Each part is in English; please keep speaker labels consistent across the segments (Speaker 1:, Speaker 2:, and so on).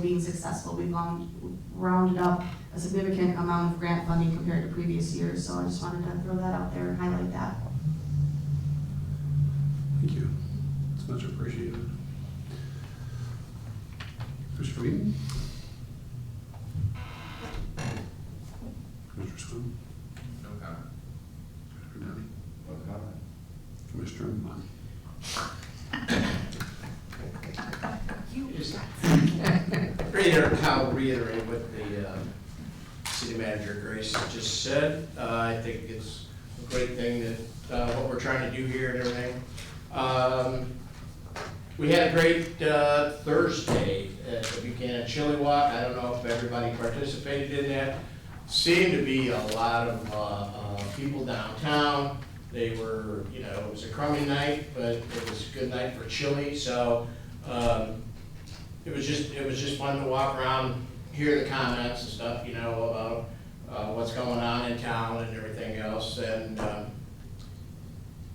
Speaker 1: being successful. We've round- rounded up a significant amount of grant funding compared to previous years, so I just wanted to throw that out there and highlight that.
Speaker 2: Thank you. It's much appreciated. Commissioner Whedon? Commissioner Swim?
Speaker 3: No comment.
Speaker 2: Commissioner Downey?
Speaker 3: No comment.
Speaker 2: Commissioner Munn?
Speaker 4: Just Reiterate, I'll reiterate what the um, city manager Grace just said. Uh, I think it's a great thing that, uh, what we're trying to do here and everything. Um, We had a great uh, Thursday at the Buchanan Chili Walk. I don't know if everybody participated in that. Seemed to be a lot of uh, uh, people downtown. They were, you know, it was a crummy night, but it was a good night for chili, so um, it was just, it was just fun to walk around, hear the comments and stuff, you know, about uh, what's going on in town and everything else. And um,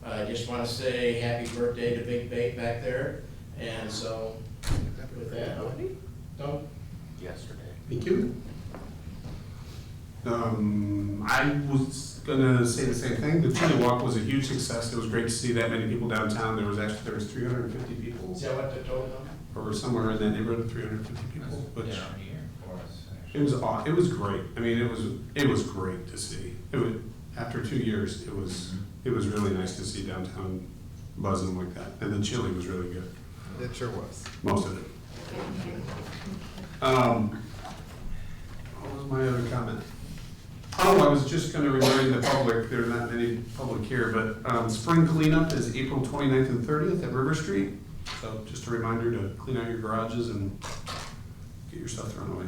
Speaker 4: I just want to say happy birthday to Big Bait back there. And so with that, oh, don't,
Speaker 3: Yesterday.
Speaker 2: Thank you. Um, I was gonna say the same thing. The Chili Walk was a huge success. It was great to see that many people downtown. There was actually, there was three hundred and fifty people,
Speaker 4: is that what the total number?
Speaker 2: or somewhere in that neighborhood, three hundred and fifty people, which
Speaker 3: Down here for us,
Speaker 2: It
Speaker 3: actually.
Speaker 2: was aw- it was great. I mean, it was it was great to see. It was after two years. It was it was really nice to see downtown buzzing like that, and the chili was really good.
Speaker 5: It sure was.
Speaker 2: Most of it. Um, what was my other comment? Oh, I was just gonna remind the public, there are not many public here, but, um, spring cleanup is April 29th and thirtieth at River Street. So just a reminder to clean out your garages and get your stuff thrown away.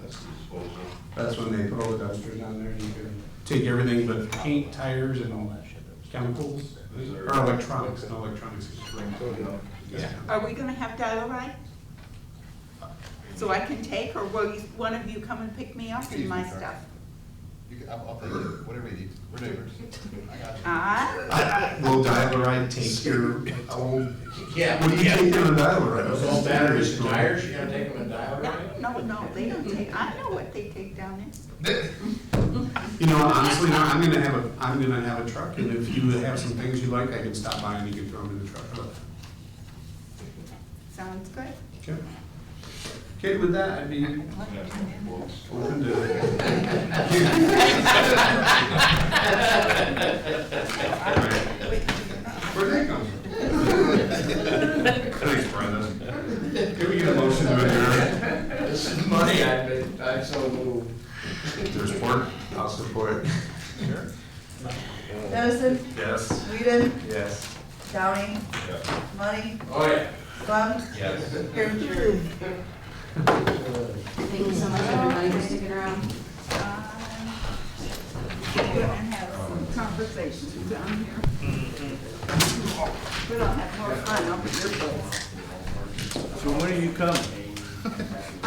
Speaker 3: That's disposal.
Speaker 2: That's when they put all the dumpsters down there, and you can take everything but paint, tires, and all that shit, chemicals, or electronics, and electronics is great. Yeah.
Speaker 6: Are we gonna have dial-a-ride? So I can take, or will you, one of you come and pick me up and
Speaker 5: Excuse me,
Speaker 6: my
Speaker 5: sir.
Speaker 6: stuff?
Speaker 5: You can, I'll, I'll pay you, whatever you need, we're neighbors. I got you.
Speaker 6: Ah,
Speaker 2: Will Dial-A-Ride take your old,
Speaker 4: Yeah,
Speaker 2: what do you take down to Dial-A-Ride?
Speaker 4: those old batteries and tires, you're gonna take them and dial right?
Speaker 6: no, no, they don't take, I know what they take down there.
Speaker 2: You know, honestly, no, I'm gonna have a, I'm gonna have a truck, and if you have some things you like, I can stop by and you can throw them in the truck.
Speaker 6: Sounds good.
Speaker 2: Okay, Okay. with that, I'd be open to. All right. Where'd that come from? Thanks, Brenda. Can we get a motion to adjourn?
Speaker 4: This is money I've been, I've so moved.
Speaker 2: There's support? I'll support.
Speaker 7: Dennison,
Speaker 2: Yes.
Speaker 7: Whedon,
Speaker 2: Yes.
Speaker 7: Downey, Money,
Speaker 4: Oh, yeah.
Speaker 7: Plum,
Speaker 3: Yes.
Speaker 7: Herringer.
Speaker 1: Thank you so much, everybody, for sticking around.
Speaker 6: Uh, We're gonna have some conversations down here. We don't have more fun up at your place.
Speaker 8: So when are you coming?